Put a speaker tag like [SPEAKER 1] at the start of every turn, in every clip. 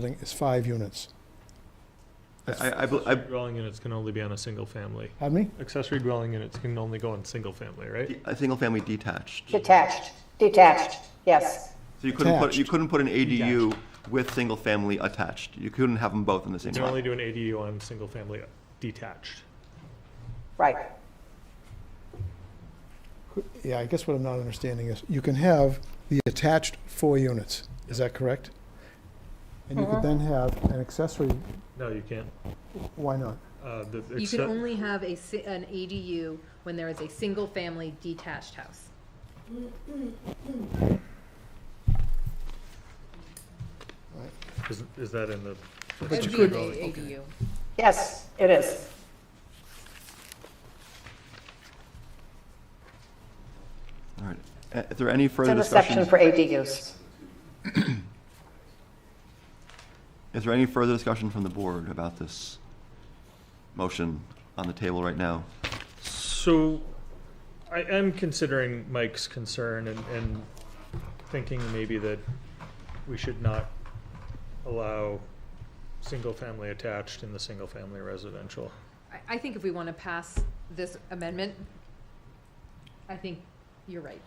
[SPEAKER 1] building is five units.
[SPEAKER 2] I, I- I, bel- I,
[SPEAKER 3] Dwelling units can only be on a single family.
[SPEAKER 1] Pardon me?
[SPEAKER 3] Accessory dwelling units can only go on single family, right?
[SPEAKER 2] a single family detached. So
[SPEAKER 4] Detached, detached, yes.
[SPEAKER 2] you couldn't put, you
[SPEAKER 1] Attached.
[SPEAKER 2] couldn't put an ADU with single family attached. You couldn't have them both in the same
[SPEAKER 3] You can only
[SPEAKER 2] lot.
[SPEAKER 3] do an ADU on single family detached.
[SPEAKER 4] Right.
[SPEAKER 1] Yeah, I guess what I'm not understanding is, you can have the attached four units, is that correct? And you could then have an accessory,
[SPEAKER 3] No, you can't.
[SPEAKER 1] why not?
[SPEAKER 3] Uh, the-
[SPEAKER 5] You
[SPEAKER 3] except-
[SPEAKER 5] can only have a, si- an ADU when there is a single-family detached house.
[SPEAKER 3] Is, is that in the?
[SPEAKER 5] It would be an ADU.
[SPEAKER 4] Yes, it is.
[SPEAKER 2] All right. Uh, Is there any
[SPEAKER 4] It's
[SPEAKER 2] further
[SPEAKER 4] in the section
[SPEAKER 2] discussion?
[SPEAKER 4] for ADUs.
[SPEAKER 2] Is there any further discussion from the board about this motion on the table right now?
[SPEAKER 3] So, I am considering Mike's concern and, and thinking maybe that we should not allow single-family attached in the single-family residential.
[SPEAKER 5] I, I think if we want to pass this amendment, I think you're right.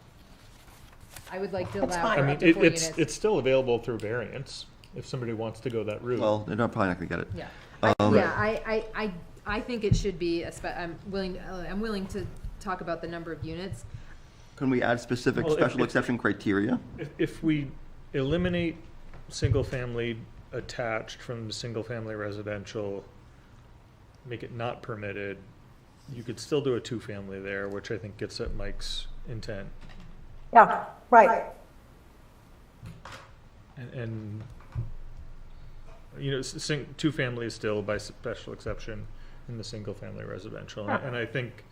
[SPEAKER 5] I would like to allow
[SPEAKER 4] fine.
[SPEAKER 3] I
[SPEAKER 5] for
[SPEAKER 3] mean,
[SPEAKER 5] up to
[SPEAKER 3] it,
[SPEAKER 5] four
[SPEAKER 3] it's,
[SPEAKER 5] units.
[SPEAKER 3] it's still available through variance, if somebody wants to go that route.
[SPEAKER 2] Well, they're not probably not gonna get it.
[SPEAKER 5] Yeah, I-
[SPEAKER 2] Um,
[SPEAKER 5] yeah, I, I, I, I think it should be, a spe- I'm willing, uh, I'm willing to talk about the number of units.
[SPEAKER 2] Can we add specific
[SPEAKER 3] Well, if-
[SPEAKER 2] special
[SPEAKER 3] if-
[SPEAKER 2] exception criteria?
[SPEAKER 3] If, if we eliminate single-family attached from the single-family residential, make it not permitted, you could still do a two-family there, which I think gets at Mike's intent.
[SPEAKER 4] Yeah, right.
[SPEAKER 3] And, and, you know, s- sing, two-family is still by special exception in the single-family residential. And I- And I think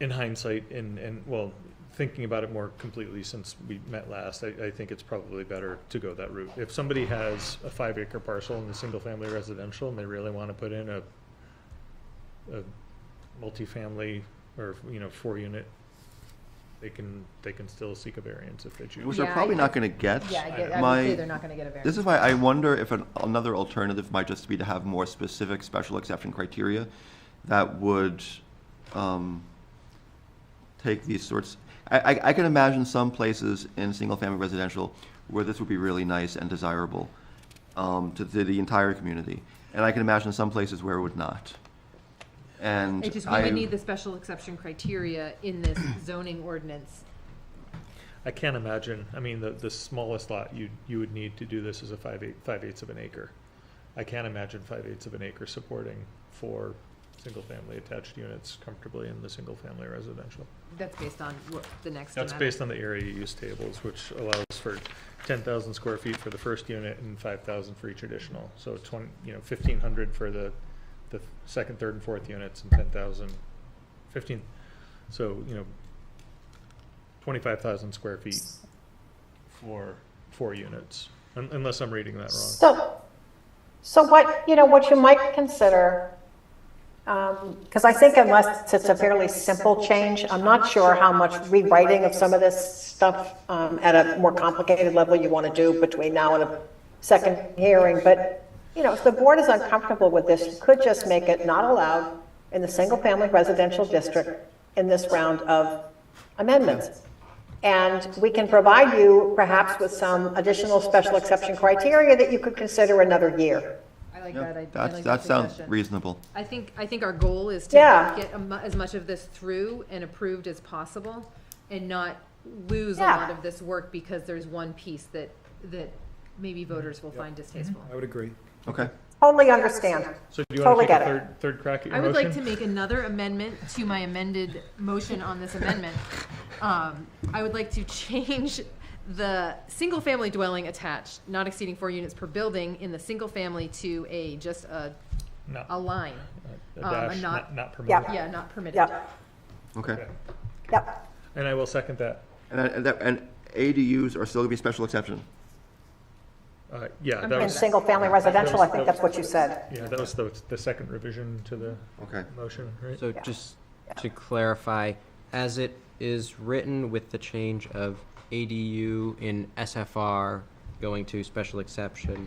[SPEAKER 3] in hindsight and, and, well, thinking about it more completely since we met last, I, I think it's probably better to go that route. If somebody has a five-acre parcel in the single-family residential and they really want to put in a, a multifamily or, you know, four-unit, they can, they can still seek a variance if they choose.
[SPEAKER 2] Which they're
[SPEAKER 5] Yeah, I
[SPEAKER 2] probably
[SPEAKER 5] get-
[SPEAKER 2] not gonna get.
[SPEAKER 5] Yeah, I get, I
[SPEAKER 2] My-
[SPEAKER 5] would say they're not gonna get a
[SPEAKER 2] This
[SPEAKER 5] variance.
[SPEAKER 2] is why I wonder if an, another alternative might just be to have more specific special exception criteria that would um, take these sorts. I, I, I can imagine some places in single family residential where this would be really nice and desirable um, to, to the entire community. And I can imagine some places where it would not. And
[SPEAKER 5] It just, we
[SPEAKER 2] I,
[SPEAKER 5] would need the special exception criteria in this zoning ordinance.
[SPEAKER 3] I can't imagine, I mean, the, the smallest lot you, you would need to do this is a five eight, five eighths of an acre. I can't imagine five eighths of an acre supporting four single-family attached units comfortably in the single-family residential.
[SPEAKER 5] That's based on what the next
[SPEAKER 3] That's
[SPEAKER 5] amendment.
[SPEAKER 3] based on the area use tables, which allows for ten thousand square feet for the first unit and five thousand for each additional. So twenty, you know, fifteen hundred for the, the second, third, and fourth units and ten thousand, fifteen, so, you know, twenty-five thousand square feet for four units, un- unless I'm reading that wrong.
[SPEAKER 4] So, so what, you know, what you might consider, because I think unless it's a fairly simple change, I'm not sure how much rewriting of some of this stuff um, at a more complicated level you want to do between now and a second hearing, but, you know, if the board is uncomfortable with this, you could just make it not allowed in the single-family residential district in this round of amendments. And we can provide you perhaps with some additional special exception criteria that you could consider another year.
[SPEAKER 5] I like that, I, I
[SPEAKER 2] yeah,
[SPEAKER 5] like that
[SPEAKER 2] that's, that sounds
[SPEAKER 5] suggestion.
[SPEAKER 2] reasonable.
[SPEAKER 5] I think, I think our goal is to
[SPEAKER 4] Yeah.
[SPEAKER 5] get a mu- as much of this through and approved as possible and not lose a
[SPEAKER 4] Yeah.
[SPEAKER 5] lot of this work because there's one piece that, that maybe voters will find distasteful.
[SPEAKER 3] Mm-hmm.
[SPEAKER 1] I would agree.
[SPEAKER 2] Okay.
[SPEAKER 4] Totally understand.
[SPEAKER 3] So do you want
[SPEAKER 4] Totally
[SPEAKER 3] to take a
[SPEAKER 4] get it.
[SPEAKER 3] third, third crack at your
[SPEAKER 5] I would
[SPEAKER 3] motion?
[SPEAKER 5] like to make another amendment to my amended motion on this amendment. Um, I would like to change the single-family dwelling attached, not exceeding four units per building in the single-family to a, just a,
[SPEAKER 3] No,
[SPEAKER 5] a line.
[SPEAKER 3] a
[SPEAKER 5] um,
[SPEAKER 3] dash,
[SPEAKER 5] a
[SPEAKER 3] not,
[SPEAKER 5] not-
[SPEAKER 3] not permitted.
[SPEAKER 5] Yeah, not permitted.
[SPEAKER 4] Yep,
[SPEAKER 2] Okay.
[SPEAKER 4] yep.
[SPEAKER 3] And I will second that.
[SPEAKER 2] And, I- and, that, and ADUs are still gonna be a special exception.
[SPEAKER 3] Uh, yeah,
[SPEAKER 5] I'm
[SPEAKER 3] that
[SPEAKER 5] fine
[SPEAKER 4] In
[SPEAKER 3] was,
[SPEAKER 4] single-family residential, I think that's what you said.
[SPEAKER 3] yeah, that was the, the second revision to the
[SPEAKER 2] Okay.
[SPEAKER 3] motion, right?
[SPEAKER 6] So just to clarify, as it is written with the change of ADU in SFR going to special exception